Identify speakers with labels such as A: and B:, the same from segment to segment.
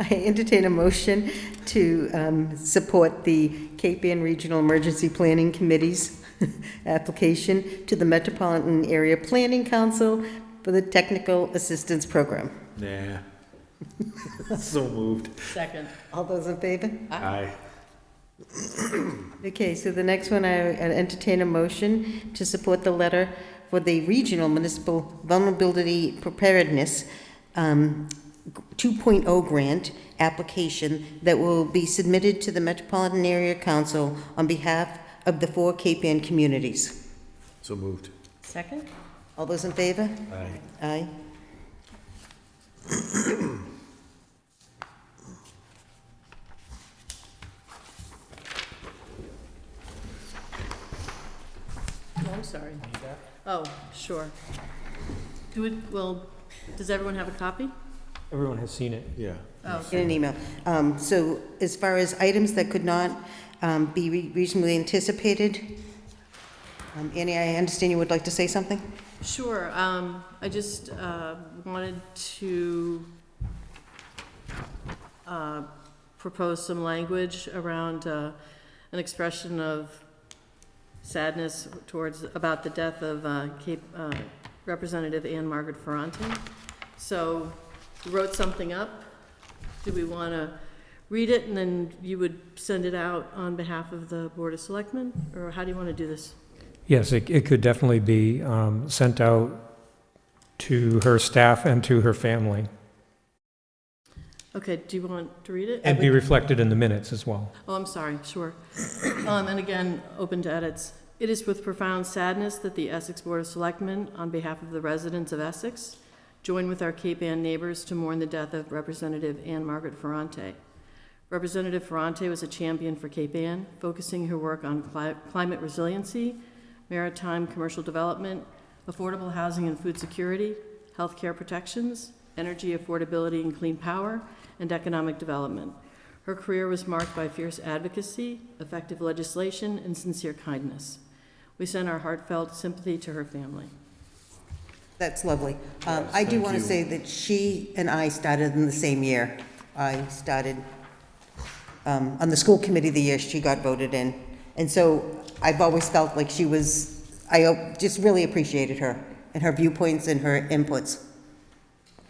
A: I entertain a motion to um, support the Cape Ann Regional Emergency Planning Committee's application to the Metropolitan Area Planning Council for the Technical Assistance Program.
B: Nah. So moved.
C: Second.
A: All those in favor?
B: Aye.
A: Okay, so the next one, I entertain a motion to support the letter for the Regional Municipal Vulnerability Preparedness um, 2.0 grant application that will be submitted to the Metropolitan Area Council on behalf of the four Cape Ann communities.
B: So moved.
C: Second?
A: All those in favor?
B: Aye.
A: Aye.
C: Oh, I'm sorry. Oh, sure. Do it, well, does everyone have a copy?
D: Everyone has seen it.
B: Yeah.
C: Oh,
A: Get an email. Um, So as far as items that could not um, be re- reasonably anticipated, um, Annie, I understand you would like to say something?
C: sure. Um, I just, uh, wanted to, uh, propose some language around, uh, an expression of sadness towards, about the death of, uh, Cape, uh, Representative Ann Margaret Ferranti. So, wrote something up. Do we want to read it and then you would send it out on behalf of the Board of Selectmen? Or how do you want to do this?
D: Yes, it, it could definitely be um, sent out to her staff and to her family
C: Okay, do you want to read it?
D: and be reflected in the minutes as well.
C: Oh, I'm sorry, sure. Um, And again, open to edits. It is with profound sadness that the Essex Board of Selectmen, on behalf of the residents of Essex, join with our Cape Ann neighbors to mourn the death of Representative Ann Margaret Ferrante. Representative Ferrante was a champion for Cape Ann, focusing her work on cli- climate resiliency, maritime commercial development, affordable housing and food security, healthcare protections, energy affordability and clean power, and economic development. Her career was marked by fierce advocacy, effective legislation, and sincere kindness. We send our heartfelt sympathy to her family.
A: That's lovely. Um, I do
B: thank
A: want to
B: you.
A: say that she and I started in the same year. I started um, on the school committee the year she got voted in. And so I've always felt like she was, I uh, just really appreciated her and her viewpoints and her inputs.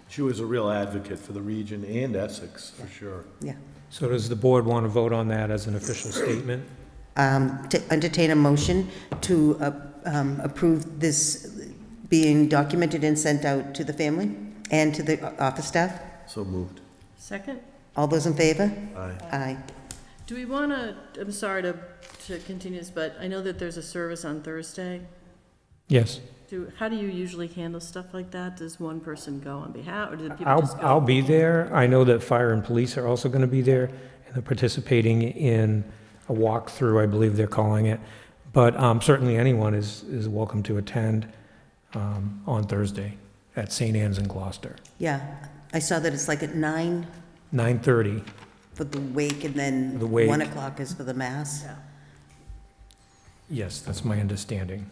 B: She was a real advocate for the region and Essex, for sure.
A: Yeah.
D: So does the board want to vote on that as an official statement?
A: Um, To entertain a motion to uh, um, approve this being documented and sent out to the family and to the uh, office staff.
B: So moved.
C: Second?
A: All those in favor?
B: Aye.
A: Aye.
C: Do we want to, I'm sorry to, to continue this, but I know that there's a service on Thursday.
D: Yes.
C: Do, how do you usually handle stuff like that? Does one person go on behalf, or do the people
D: I'll,
C: just go?
D: I'll be there. I know that fire and police are also going to be there and they're participating in a walkthrough, I believe they're calling it. But um, certainly anyone is, is welcome to attend um, on Thursday at St. Anne's in Gloucester,
A: Yeah, I saw that it's like at nine
D: 9:30.
A: for the wake and then
D: The wake.
A: one o'clock is for the mass.
C: Yeah.
D: Yes, that's my understanding.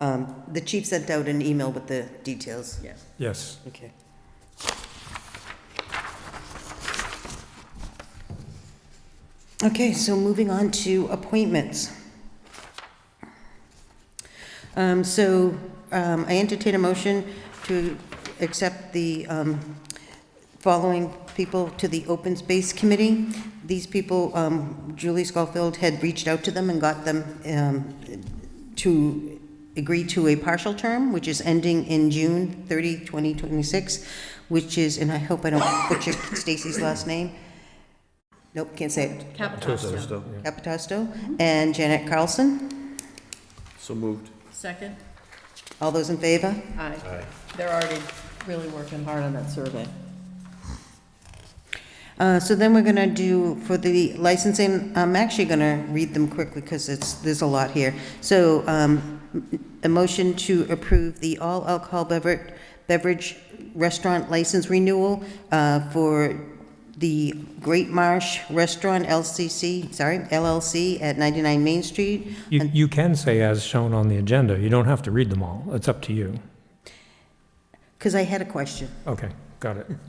A: Um, The chief sent out an email with the details.
C: Yeah.
D: Yes.
A: Okay. Okay, so moving on to appointments. Um, So um, I entertain a motion to accept the um, following people to the Open Space Committee. These people, um, Julie Schofield had reached out to them and got them um, to agree to a partial term, which is ending in June 30, 2026, which is, and I hope I don't butcher Stacy's last name. Nope, can't say it.
C: Capitano.
A: Capitasto and Janet Carlson.
B: So moved.
C: Second?
A: All those in favor?
C: Aye.
B: Aye.
C: They're already really working hard on that survey.
A: Uh, So then we're going to do, for the licensing, I'm actually going to read them quickly because it's, there's a lot here. So um, a motion to approve the all alcohol bever- beverage restaurant license renewal uh, for the Great Marsh Restaurant LCC, sorry, LLC at 99 Main Street.
D: You, you can say as shown on the agenda. You don't have to read them all. It's up to you.
A: Because I had a question.
D: Okay, got it.